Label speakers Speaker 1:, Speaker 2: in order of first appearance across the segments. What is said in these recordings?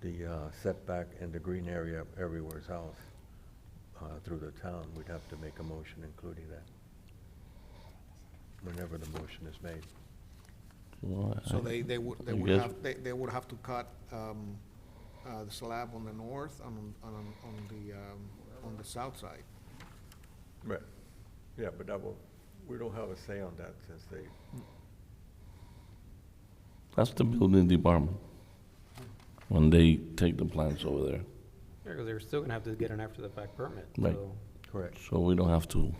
Speaker 1: the uh, setback and the green area everywhere's house uh, through the town, we'd have to make a motion including that. Whenever the motion is made.
Speaker 2: Well, I-
Speaker 3: So they, they would, they
Speaker 2: I
Speaker 3: would
Speaker 2: guess-
Speaker 3: have, they, they would have to cut, um, uh, the slab on the north and on, on, on the, um, on the south side.
Speaker 1: Right. Yeah, but that will, we don't have a say on that since they,
Speaker 2: That's the building department, when they take the plans over there.
Speaker 4: Yeah, because they're still gonna have to get an after-the-fact permit,
Speaker 2: Right.
Speaker 4: so.
Speaker 1: correct.
Speaker 2: So we don't have to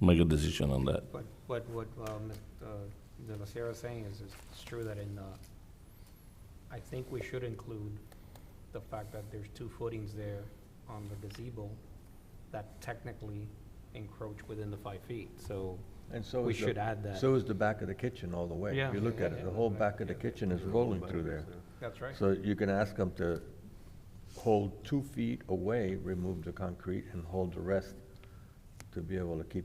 Speaker 2: make a decision on that.
Speaker 4: But what, what, um, uh, De La Sierra is saying is, it's true that in, uh, I think we should include the fact that there's two footings there on the gazebo that technically encroach within the five feet, so
Speaker 1: And so
Speaker 4: we
Speaker 1: is the-
Speaker 4: should add that.
Speaker 1: So is the back of the kitchen all the way.
Speaker 4: Yeah.
Speaker 1: If you look at it, the whole back of the kitchen is rolling through there.
Speaker 4: That's right.
Speaker 1: So you can ask them to hold two feet away, remove the concrete, and hold the rest to be able to keep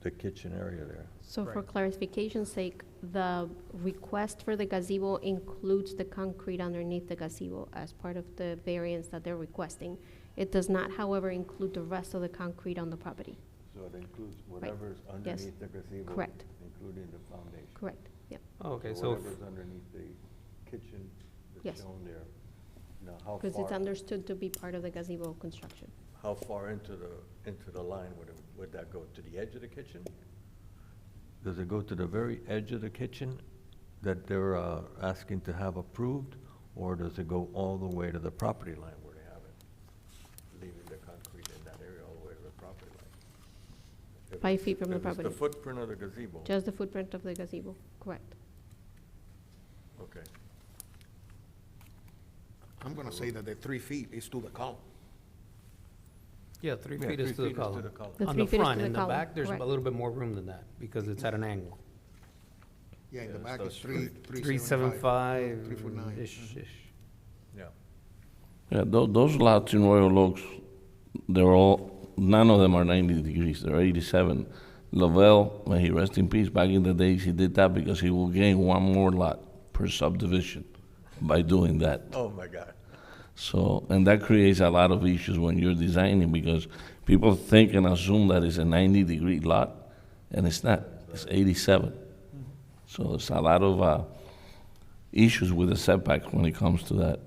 Speaker 1: the kitchen area there.
Speaker 5: So for
Speaker 4: Right.
Speaker 5: clarification's sake, the request for the gazebo includes the concrete underneath the gazebo as part of the variance that they're requesting. It does not, however, include the rest of the concrete on the property.
Speaker 1: So it includes
Speaker 5: whatever's underneath
Speaker 1: the gazebo.
Speaker 5: Correct.
Speaker 1: Including the foundation.
Speaker 5: Correct, yep.
Speaker 4: Oh, Okay, so, f-
Speaker 1: Whatever's underneath the kitchen that's
Speaker 5: Yes.
Speaker 1: shown there. Now, how
Speaker 5: Because it's
Speaker 1: far,
Speaker 5: understood to be part of the gazebo construction.
Speaker 1: how far into the, into the line would it, would that go? To the edge of the kitchen? Does it go to the very edge of the kitchen that they're uh, asking to have approved? Or does it go all the way to the property line where they have it? Leaving the concrete in that area all the way to the property line? If
Speaker 5: Five
Speaker 1: it's-
Speaker 5: feet from the
Speaker 1: if it's
Speaker 5: property.
Speaker 1: the footprint of the gazebo?
Speaker 5: Just the footprint of the gazebo, correct.
Speaker 1: Okay.
Speaker 3: I'm gonna say that the three feet is to the column.
Speaker 4: yeah, three
Speaker 1: Yeah,
Speaker 4: feet is to the column.
Speaker 5: The
Speaker 4: On
Speaker 5: three
Speaker 4: the
Speaker 5: feet is
Speaker 4: front,
Speaker 5: to the
Speaker 4: in the
Speaker 5: column,
Speaker 4: back, there's a
Speaker 5: correct.
Speaker 4: little bit more room than that, because it's at an angle.
Speaker 3: Yeah, in the
Speaker 1: Yeah,
Speaker 3: back
Speaker 1: so
Speaker 3: is
Speaker 1: it's
Speaker 3: three,
Speaker 4: Three seven five.
Speaker 3: Three foot nine.
Speaker 4: Ish, ish.
Speaker 1: Yeah.
Speaker 2: Yeah, tho- those lots in Royal Oaks, they're all, none of them are 90 degrees, they're 87. Lavelle, may he rest in peace, back in the days, he did that because he will gain one more lot per subdivision by doing that.
Speaker 1: Oh, my God.
Speaker 2: So, and that creates a lot of issues when you're designing because people think and assume that it's a 90 degree lot, and it's not. It's 87. So it's a lot of uh, issues with the setback when it comes to that.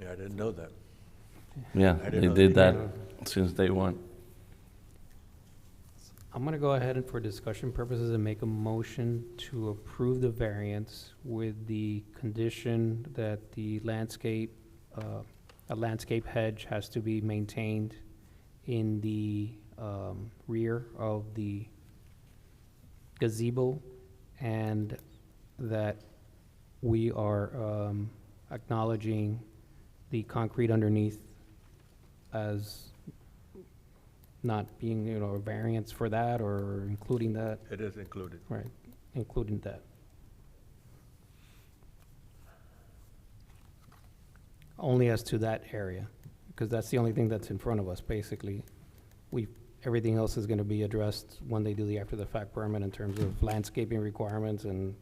Speaker 1: Yeah, I didn't know that.
Speaker 2: Yeah,
Speaker 1: I didn't
Speaker 2: they
Speaker 1: know
Speaker 2: did
Speaker 1: they
Speaker 2: that
Speaker 1: did
Speaker 2: since day one.
Speaker 4: I'm gonna go ahead and for discussion purposes and make a motion to approve the variance with the condition that the landscape, uh, a landscape hedge has to be maintained in the, um, rear of the gazebo and that we are, um, acknowledging the concrete underneath as not being, you know, a variance for that or including that,
Speaker 1: It is included.
Speaker 4: right, including that. Only as to that area, because that's the only thing that's in front of us, basically. We, everything else is gonna be addressed when they do the after-the-fact permit in terms of landscaping requirements and,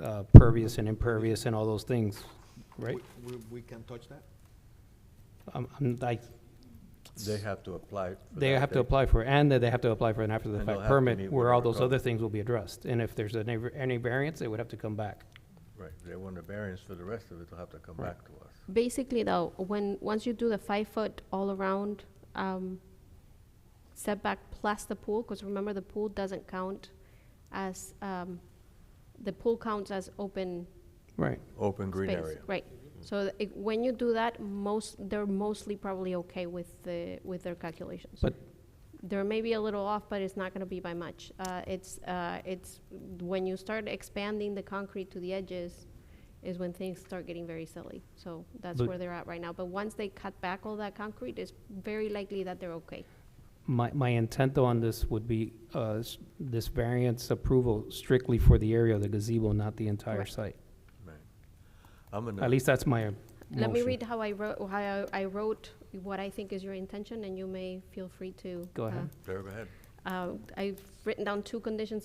Speaker 4: uh, pervious and impervious and all those things, right?
Speaker 3: We, we- we can touch that?
Speaker 4: Um, I'm, I,
Speaker 1: They have to apply. for
Speaker 4: They
Speaker 1: that.
Speaker 4: have to apply for, and that they have to apply for
Speaker 1: And
Speaker 4: an
Speaker 1: they'll
Speaker 4: after-the-fact
Speaker 1: have to
Speaker 4: permit,
Speaker 1: meet
Speaker 4: where all
Speaker 1: whatever
Speaker 4: those other
Speaker 1: code.
Speaker 4: things will be addressed. And if there's any, any variance, they would have to come back.
Speaker 1: Right, they want a variance for the rest of it, they'll have to come back to us.
Speaker 5: Basically though, when, once you do the five-foot all-around um, setback plus the pool, because remember, the pool doesn't count as, um, the pool counts as open
Speaker 4: Right.
Speaker 1: Open green
Speaker 5: space,
Speaker 1: area.
Speaker 5: Right. So th- it- when you do that, most, they're mostly probably okay with the, with their calculations.
Speaker 4: But-
Speaker 5: There may be a little off, but it's not gonna be by much. Uh, it's, uh, it's, when you start expanding the concrete to the edges is when things start getting very silly. So that's
Speaker 4: But-
Speaker 5: where they're at right now. But once they cut back all that concrete, it's very likely that they're okay.
Speaker 4: My, my intent though on this would be, uh, s- this variance approval strictly for the area of the gazebo, not the entire
Speaker 5: Correct.
Speaker 4: site.
Speaker 1: Right. I'm
Speaker 4: At
Speaker 1: gonna,
Speaker 4: least that's my
Speaker 5: Let me read
Speaker 4: motion.
Speaker 5: how I wrote, how I I wrote what I think is your intention, and you may feel free to.
Speaker 4: Go
Speaker 5: uh,
Speaker 4: ahead.
Speaker 1: Sarah, go ahead.
Speaker 5: uh, I've written down two conditions of